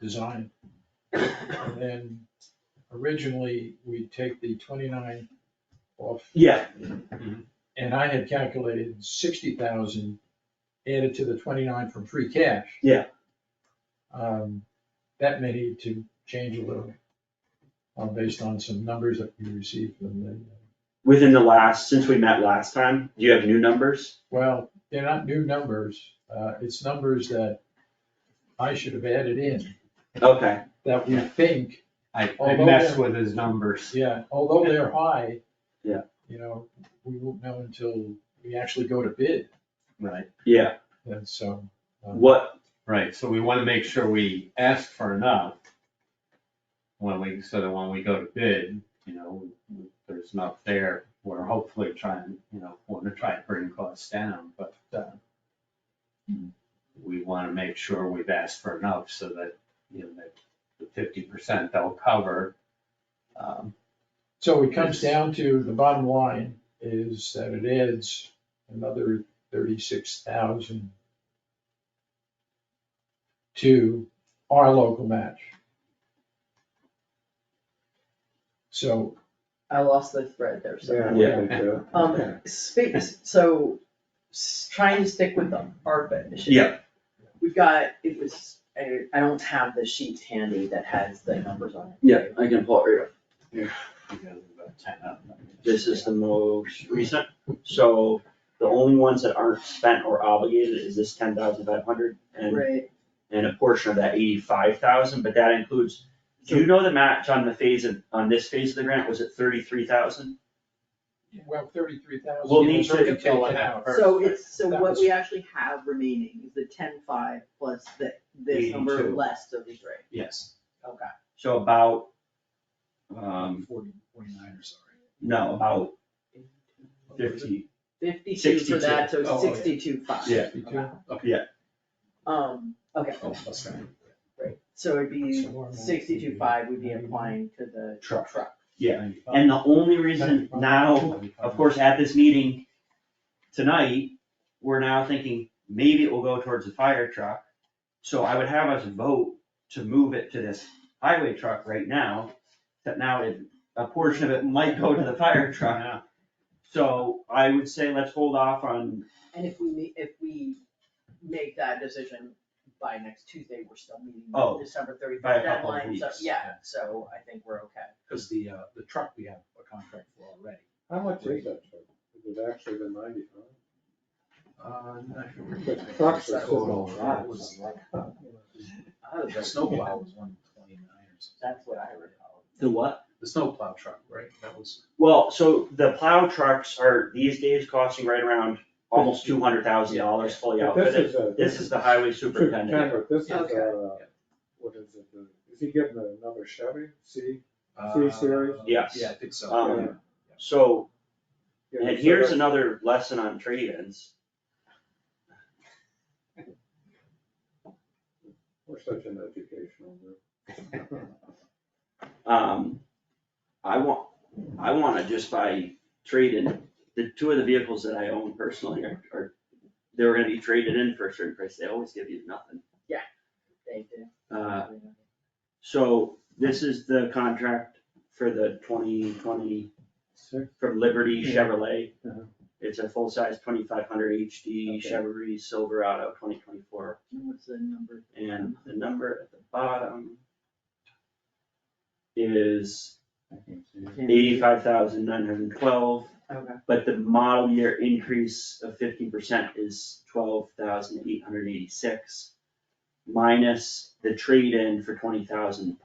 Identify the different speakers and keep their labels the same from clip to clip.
Speaker 1: design. And then originally, we'd take the twenty-nine off,
Speaker 2: Yeah,
Speaker 1: and I had calculated sixty thousand added to the twenty-nine from free cash.
Speaker 2: Yeah.
Speaker 1: Um, that may need to change a little, uh, based on some numbers that we received from the,
Speaker 2: within the last, since we met last time, do you have new numbers?
Speaker 1: well, they're not new numbers, uh, it's numbers that I should have added in,
Speaker 2: Okay,
Speaker 1: that we think
Speaker 3: I, I
Speaker 1: Although
Speaker 3: messed
Speaker 1: they're-
Speaker 3: with his numbers.
Speaker 1: Yeah, although they're high.
Speaker 2: Yeah.
Speaker 1: You know, we won't know until we actually go to bid,
Speaker 3: Right.
Speaker 2: yeah,
Speaker 1: and so. um,
Speaker 2: what,
Speaker 3: Right, so we wanna make sure we ask for enough. When we, so that when we go to bid, you know, there's enough there, we're hopefully trying, you know, wanna try and bring costs down, but, uh. We wanna make sure we've asked for enough so that, you know, that the fifty percent they'll cover. Um,
Speaker 1: So it comes down to, the bottom line is that it adds another thirty-six thousand to our local match. So,
Speaker 4: I lost the thread there, so.
Speaker 2: Yeah.
Speaker 4: Um, space, so, s- trying to stick with the ARPA issue.
Speaker 2: Yeah.
Speaker 4: We've got, it was, I, I don't have the sheet handy that has the numbers on it.
Speaker 2: yeah, I can pull it right up.
Speaker 3: because of the ten of them.
Speaker 2: This is the most recent, so the only ones that aren't spent or obligated is this ten thousand five hundred and,
Speaker 4: Right.
Speaker 2: and a portion of that eighty-five thousand, but that includes, do you know the match on the phase of, on this phase of the grant, was it thirty-three thousand?
Speaker 1: well, thirty-three thousand.
Speaker 2: We'll need to
Speaker 1: Taken
Speaker 3: fill it
Speaker 1: out.
Speaker 3: out.
Speaker 4: So it's, so
Speaker 1: That
Speaker 4: what
Speaker 1: was-
Speaker 4: we actually have remaining is the ten-five plus the, this number
Speaker 2: 82.
Speaker 4: less of the three.
Speaker 3: Yes.
Speaker 4: Okay.
Speaker 2: So about, um,
Speaker 1: Forty, forty-nine, or sorry.
Speaker 2: no, about fifty,
Speaker 4: Fifty-two for
Speaker 2: 62.
Speaker 4: that, so
Speaker 1: Oh, yeah.
Speaker 4: sixty-two-five.
Speaker 2: Yeah. Oh.
Speaker 1: Fifty-two.
Speaker 4: Um, okay, right, so it'd be sixty-two-five would be applying to the
Speaker 2: Truck.
Speaker 4: truck.
Speaker 2: Yeah, and the only reason now Of course, at this meeting tonight, we're now thinking maybe it will go towards the fire truck. So I would have us vote to move it to this highway truck right now, that now it, a portion of it might go to the fire truck.
Speaker 3: Yeah.
Speaker 2: So I would say let's hold off on,
Speaker 4: And if we, ma- if we make that decision by next Tuesday, we're still meeting
Speaker 2: Oh,
Speaker 4: the December thirty
Speaker 2: by a
Speaker 4: first
Speaker 2: couple of
Speaker 4: deadline, so,
Speaker 2: weeks,
Speaker 4: yeah,
Speaker 1: yeah.
Speaker 4: so I think we're okay.
Speaker 1: Cause the, uh, the truck we have a contract for already.
Speaker 5: How much is that truck? Is it actually the ninety-five?
Speaker 1: Uh,
Speaker 5: The trucks are so
Speaker 1: That was like, uh, the snowplow was one twenty-nine or something.
Speaker 4: That's what I recall.
Speaker 2: the what?
Speaker 1: The snowplow truck, right, that was.
Speaker 2: Well, so the plow trucks are these days costing right around almost two hundred thousand dollars fully
Speaker 5: But This
Speaker 2: outfitted.
Speaker 5: is a.
Speaker 2: This is the highway superintendent.
Speaker 5: Superintendent, this is
Speaker 4: Okay.
Speaker 5: uh what is it, the-
Speaker 6: uh,
Speaker 5: is he getting another Chevy, C?
Speaker 1: uh,
Speaker 5: Three series?
Speaker 2: Yes.
Speaker 1: Yeah, I think so.
Speaker 2: Um,
Speaker 1: Yeah.
Speaker 2: So
Speaker 5: Yeah,
Speaker 2: And
Speaker 5: so
Speaker 2: here's
Speaker 5: that-
Speaker 2: another lesson on trade-ins.
Speaker 5: We're such an educational group.
Speaker 2: Um, I want, I wanna just buy trade-in, the two of the vehicles that I own personally are, are, they were gonna be traded in for a certain price, they always give you nothing.
Speaker 4: They did.
Speaker 2: Uh, so this is the contract for the twenty twenty
Speaker 5: Six,
Speaker 2: from Liberty Chevrolet.
Speaker 5: Uh-huh.
Speaker 2: It's a full-size twenty-five hundred HD
Speaker 5: Okay.
Speaker 2: Chevrolet Silverado twenty twenty-four.
Speaker 4: What's the number?
Speaker 2: And the number at the bottom is eighty-five thousand nine hundred and twelve,
Speaker 4: Okay,
Speaker 2: but the model year increase of fifteen percent is twelve thousand eight hundred eighty-six minus the trade-in for twenty thousand.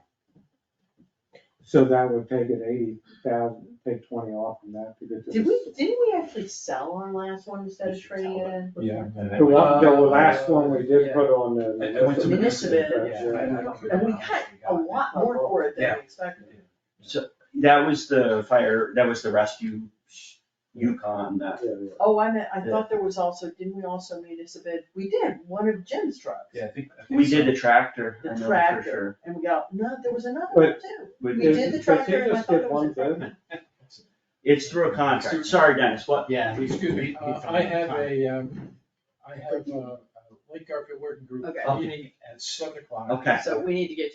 Speaker 6: So that would take it eighty thousand, take twenty off from that to get to.
Speaker 4: did
Speaker 6: the-
Speaker 4: we, didn't we actually sell our last one instead of
Speaker 3: Did you sell
Speaker 4: trading in?
Speaker 1: Yeah.
Speaker 6: The one, the last
Speaker 1: Uh,
Speaker 6: one we did
Speaker 1: yeah.
Speaker 6: put on the.
Speaker 1: I- I went to
Speaker 4: Municipal,
Speaker 1: Yeah, I- I don't
Speaker 4: And we
Speaker 1: remember how
Speaker 4: cut
Speaker 1: much
Speaker 4: a
Speaker 1: got.
Speaker 4: lot more for it than we expected.
Speaker 2: That was the fire, that was the rescue Yukon, that,
Speaker 5: yeah, yeah.
Speaker 4: Oh, I meant, I thought there was also, didn't we also municipal, we did, one of Jim's trucks.
Speaker 1: Yeah, I think. I think
Speaker 2: we
Speaker 1: so.
Speaker 2: did the tractor, I
Speaker 4: The
Speaker 2: know for sure.
Speaker 4: tractor, and we got, no, there was another one
Speaker 6: But-
Speaker 4: too.
Speaker 2: We
Speaker 4: We
Speaker 2: did-
Speaker 4: did the
Speaker 6: But
Speaker 4: tractor
Speaker 6: you
Speaker 4: and I
Speaker 6: just
Speaker 4: thought
Speaker 6: did
Speaker 4: it was
Speaker 6: one
Speaker 4: a-
Speaker 6: bid,
Speaker 2: It's through a contract, sorry Dennis, what?
Speaker 3: Yeah.
Speaker 1: Excuse me, uh, I uh, have a, um, I have, uh, Lake Garfield Working Group
Speaker 4: Okay.
Speaker 1: meeting at seven o'clock.
Speaker 2: Okay.
Speaker 4: So we need to get